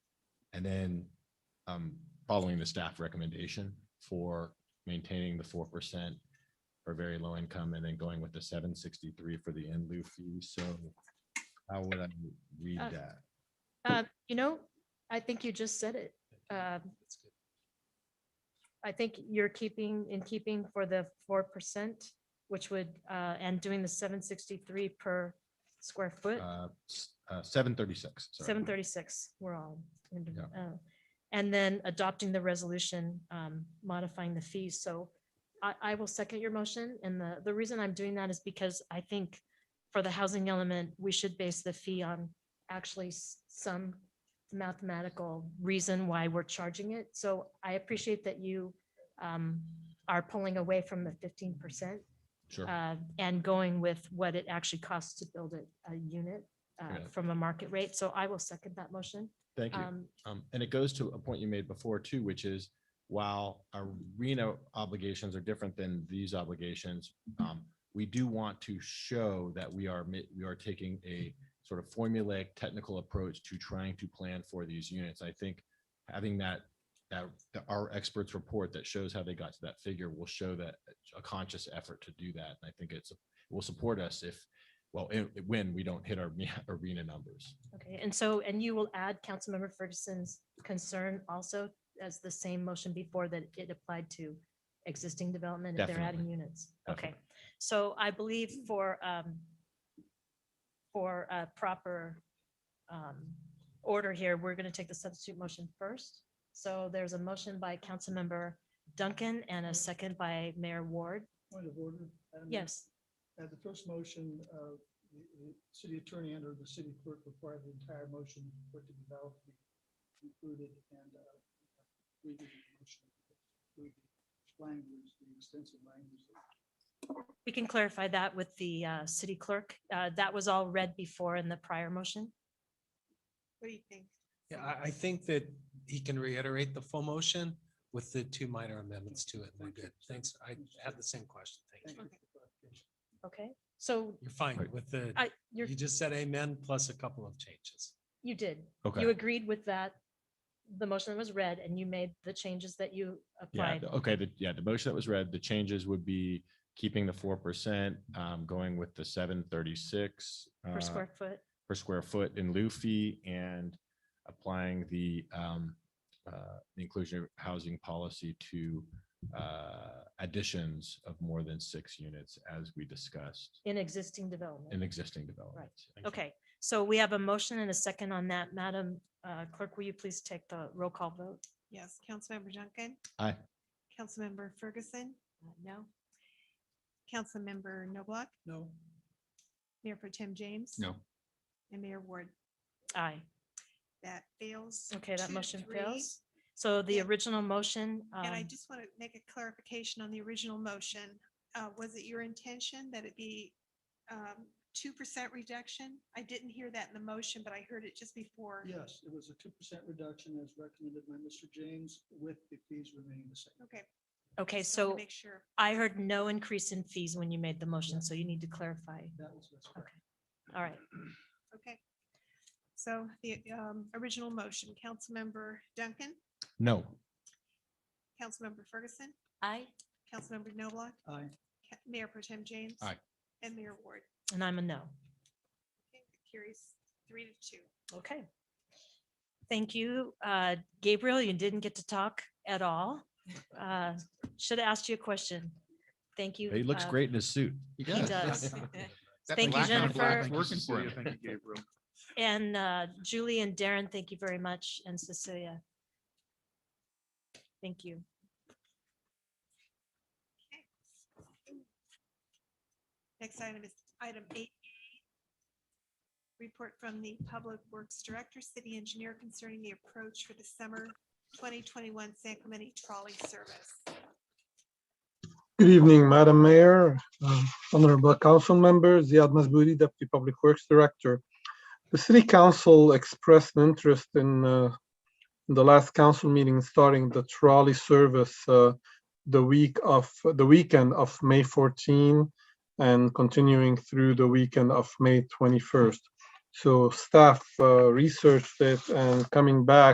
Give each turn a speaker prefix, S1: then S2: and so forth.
S1: And then um, following the staff recommendation for maintaining the four percent for very low income and then going with the seven sixty-three for the in lieu fee. So how would I read
S2: Uh,
S1: that?
S2: Uh, You know, I think you just said it. Um, I think you're keeping, in keeping for the four percent, which would, uh, and doing the seven sixty-three per square
S1: Uh,
S2: foot,
S1: Seven thirty-six.
S2: seven thirty-six, we're all. into- uh, And then adopting the resolution, um, modifying the fees. So I, I will second your motion. And the, the reason I'm doing that is because I think for the housing element, we should base the fee on actually s- some mathematical reason why we're charging it. So I appreciate that you um, are pulling away from the fifteen percent
S1: Sure.
S2: uh, and going with what it actually costs to build a, a unit uh,
S1: Yeah.
S2: from a market rate. So I will second that motion.
S1: Thank you.
S2: Um,
S1: Um, and it goes to a point you made before too, which is while arena obligations are different than these obligations, um, we do want to show that we are, mi- we are taking a sort of formulaic technical approach to trying to plan for these units. I think having that, that, that our experts report that shows how they got to that figure will show that uh, a conscious effort to do that. And I think it's, it will support us if, well, it- when we don't hit our arena numbers.
S2: Okay, and so, and you will add Councilmember Ferguson's concern also as the same motion before that it applied to existing development if they're adding units. Okay, so I believe for, um, for a proper, um, order here, we're going to take the substitute motion first. So there's a motion by Councilmember Duncan and a second by Mayor Ward.
S3: Point of order. Madam Mayor.
S2: Yes,
S3: At the first motion, uh, the the city attorney and or the city clerk required the entire motion for it to be valid to be included and uh, we did the motion with the language, the extensive language.
S2: we can clarify that with the, uh, city clerk. Uh, that was all read before in the prior motion.
S4: What do you think?
S5: Yeah, I, I think that he can reiterate the full motion with the two minor amendments to it. and We're good. Thanks. I had the same question. Thank
S3: Thank you.
S5: you.
S2: Okay, so
S5: You're fine
S1: Right.
S5: with the,
S2: I, you're,
S5: you just said amen plus a couple of changes.
S2: you did.
S1: Okay.
S2: You agreed with that, the motion that was read, and you made the changes that you
S1: Yeah,
S2: applied.
S1: the- okay, the, yeah, the motion that was read, the changes would be keeping the four percent, um, going with the seven thirty-six. uh,
S2: Per square foot,
S1: Per square foot in lieu fee and applying the, um, uh, the inclusion housing policy to, uh, additions of more than six units as we discussed
S2: in existing
S1: in
S2: development.
S1: existing developments.
S2: Okay, so we have a motion and a second on that. Madam uh, Clerk, will you please take the roll call vote?
S4: Yes, Councilmember Duncan.
S1: Aye.
S4: Councilmember Ferguson.
S2: Uh,
S4: No. Councilmember Noblock,
S3: No,
S4: Mayor Pro Tem James.
S1: No.
S4: And Mayor Ward.
S2: Aye.
S4: That fails.
S2: Okay, that
S4: two to
S2: motion
S4: three.
S2: fails. So the
S4: Yeah.
S2: original motion,
S4: And I
S2: um,
S4: just want to make a clarification on the original motion. Uh, Was it your intention that it be um, two percent reduction? I didn't hear that in the motion, but I heard it just before.
S3: yes, it was a two percent reduction as recommended by Mr. James with the fees remaining the same.
S4: Okay.
S2: okay,
S4: just wanted to
S2: so
S4: Make sure.
S2: I heard no increase in fees when you made the motion, so you need to clarify.
S3: That was what's correct.
S2: All right,
S4: Okay. So the um, original motion, Councilmember Duncan,
S1: No,
S4: Councilmember Ferguson,
S2: aye,
S4: Councilmember Noblock,
S3: Aye.
S4: Ca- Mayor Pro Tem James.
S1: Aye.
S4: And Mayor Ward.
S2: and I'm a no.
S4: Okay, that Carries three to two.
S2: Okay. Thank you. Uh, Gabriel, you didn't get to talk at all. Should have asked you a question. Thank you.
S1: he looks
S2: uh,
S1: great in his suit.
S6: He
S2: He does. Thank you,
S6: black on black
S2: Jennifer.
S6: Working for him.
S3: Thank you, Gabriel.
S2: And uh, Julie and Darren, thank you very much, and Cecilia. Thank you.
S4: Next item is item eight. Report from the Public Works Director, City Engineer concerning the approach for the summer 2021 San Clemente trolley service.
S7: Good evening, Madam Mayor, um, honorable council members, Ziad Masbouli, Deputy Public Works Director. The City Council expressed an interest in uh, in the last council meeting, in starting the trolley service uh, the week of, the weekend of May 14 and continuing through the weekend of May 21st. So staff uh, researched it and coming back